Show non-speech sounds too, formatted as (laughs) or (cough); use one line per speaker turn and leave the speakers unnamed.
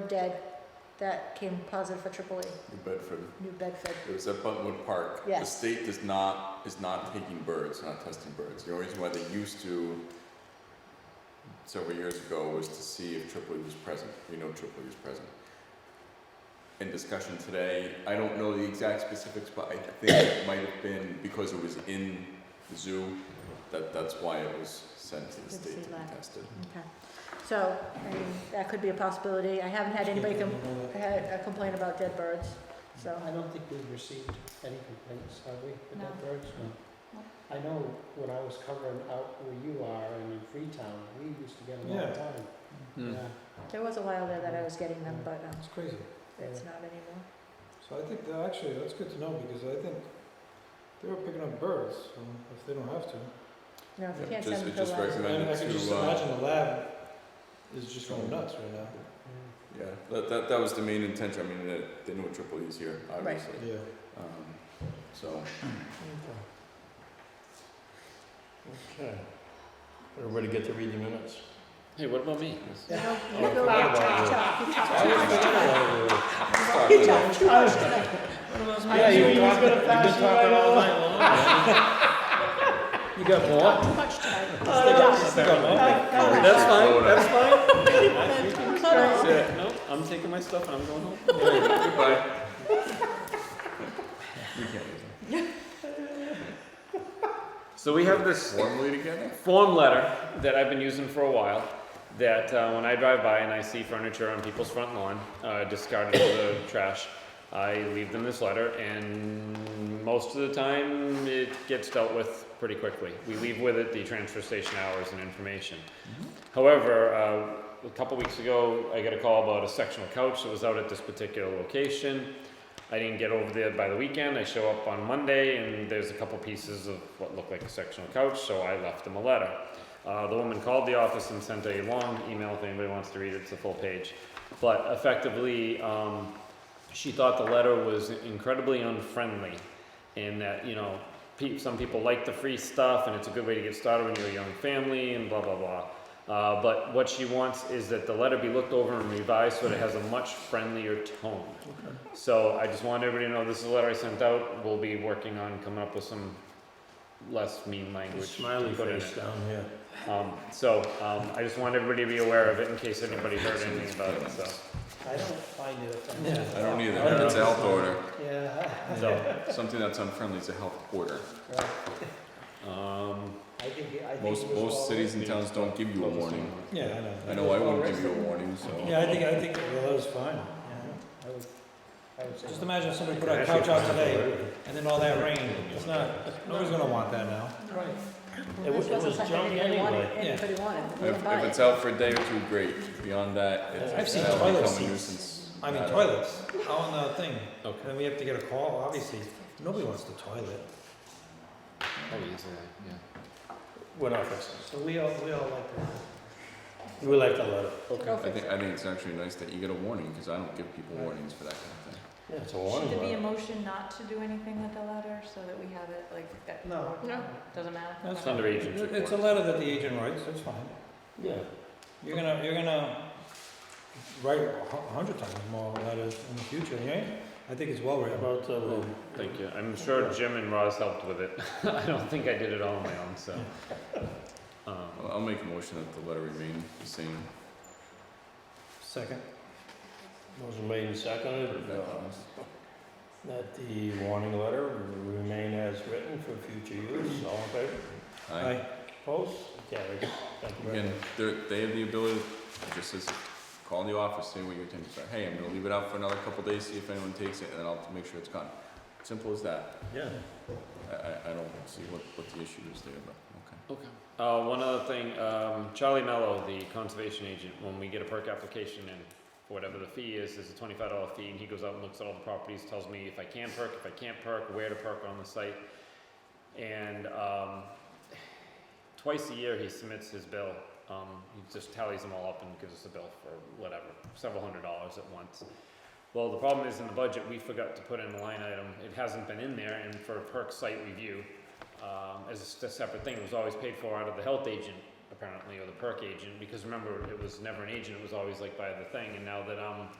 were dead that came positive for AAA,
New Bedford.
New Bedford.
It was at Buttonwood Park.
Yes.
The state does not, is not taking birds, not testing birds. The only reason why they used to several years ago was to see if Tripoli was present. We know Tripoli was present. In discussion today, I don't know the exact specifics, but I think it might have been because it was in the zoo, that, that's why it was sent to the
Good to
state
see
to
that.
be tested.
Okay, so, I mean, that could be a possibility. I haven't had anybody com- had a complaint about dead birds, so.
I don't think we've received any complaints, have we, about
No.
birds?
No.
I know when I was covering out where you are and in Freetown, we used to get them all
Yeah.
the time.
Hmm.
Yeah,
There was a while there that I was getting them, but um,
It's crazy.
it's not anymore.
So I think that actually, that's good to know because I think they were picking up birds, so if they don't have to.
No, if you
Yeah,
can't
just-
send them
it
to
just
labs.
recommend-
And I can
to,
just
uh,
imagine the lab is just going nuts right now.
yeah.
Yeah, that, that, that was the main intention. I mean, they- they knew Tripoli is here, obviously.
Yeah.
Um, so.
Okay. Everybody get to read the minutes?
Hey, what about me?
You know,
Oh,
you
I
go
forgot
out,
about
you
you.
talk, you talk
Yeah,
too much tonight. You talk too much tonight.
you were talking, you've been talking all night long.
(laughs) You got
You talk too much tonight.
That's fine, that's fine.
Cut off.
Yeah, Nope, I'm taking my stuff and I'm going home.
Goodbye. We can't
So we have this
formally together.
form letter that I've been using for a while. That uh, when I drive by and I see furniture on people's front lawn, uh, discarded for the (coughs) trash, I leave them this letter, and most of the time it gets dealt with pretty quickly. We leave with it the transfer station hours and information. However, uh, a couple weeks ago, I got a call about a sectional couch that was out at this particular location. I didn't get over there by the weekend. I show up on Monday, and there's a couple pieces of what looked like a sectional couch, so I left them a letter. Uh, the woman called the office and sent a long email if anybody wants to read it, it's a full page. But effectively, um, she thought the letter was incredibly unfriendly in that, you know, pe- some people like the free stuff and it's a good way to get started when you're a young family and blah, blah, blah. Uh, but what she wants is that the letter be looked over and revised so that it has a much friendlier tone. So I just want everybody to know this is a letter I sent out. We'll be working on coming up with some less mean language. to
Smiley
put in
face
it.
down here.
Um, so, um, I just want everybody to be aware of it in case anybody heard anything about it, so.
I don't find it offensive.
I don't
I
either.
don't
It's a
know.
health order.
Yeah,
So,
Something that's unfriendly is a health order.
right.
um,
I think, it- I think it was
Most
all.
most cities and
yeah.
towns don't give you a warning.
Yeah, I know.
I know I wouldn't give you a warning, so.
Yeah, I think, I think the letter's fine, yeah.
I would, I would say.
Just
no.
imagine somebody put a couch out today and then all that rain, it's not, nobody's gonna want that now.
Right.
It
This
was- it
wasn't
was
something
junk
anybody wanted,
anyway.
Yeah.
anybody wanted.
If,
We didn't buy
if
it.
it's out for a day or two, great. Beyond that,
I've
it's,
seen
that'll
toilet
become a
seats.
nuisance.
I mean
Uh,
toilets, out on the thing,
okay.
then we have to get a call, obviously, nobody wants the toilet.
uh, We're not fixing
So we all, we all like that.
it. We like the letter.
Go
I
fix
think,
it.
I think it's actually nice that you get a warning, because I don't give people warnings for that kind of thing.
Yeah, it's a warning
Should there be a
letter.
motion not to do anything with the letter so that we have it like at?
No.
No.
Doesn't matter?
That's
Okay.
under agent's
It- It's a
report.
letter that the agent writes, that's fine.
Yeah.
You're gonna, you're gonna write a hu- hundred times more letters in the future, yeah? I think it's well
How
written.
About, uh,
Well, Thank you. I'm sure Jim and Roz helped with it. (laughs) I don't think I did it all on my own, so. Um,
I'll, I'll make a motion that the letter remain the same.
Second.
motion made and seconded,
That
uh,
promise.
that the warning letter remain as written for future use, all in favor?
Aye.
Opposed? Carried. Thank you very
Again,
much.
they're, they have the ability, to just as, call the office, say what your intentions are, hey, I'm gonna leave it out for another couple days, see if anyone takes it, and then I'll make sure it's gone. Simple as that,
Yeah.
I, I, I don't see what, what the issue is there, but,
Okay. Uh, one other thing, um, Charlie Mello, the conservation agent, when we get a perk application and whatever the fee is, there's a twenty-five dollar fee, and he goes out and looks at all the properties, tells me if I can perk, if I can't perk, where to perk on the site. And, um, twice a year, he submits his bill, um, he just tallies them all up and gives us a bill for whatever, several hundred dollars at once. Well, the problem is in the budget, we forgot to put in a line item, it hasn't been in there, and for perk site review, um, as a s- separate thing, it was always paid for out of the health agent apparently, or the perk agent, because remember, it was never an agent, it was always like by the thing, and now that um, I'm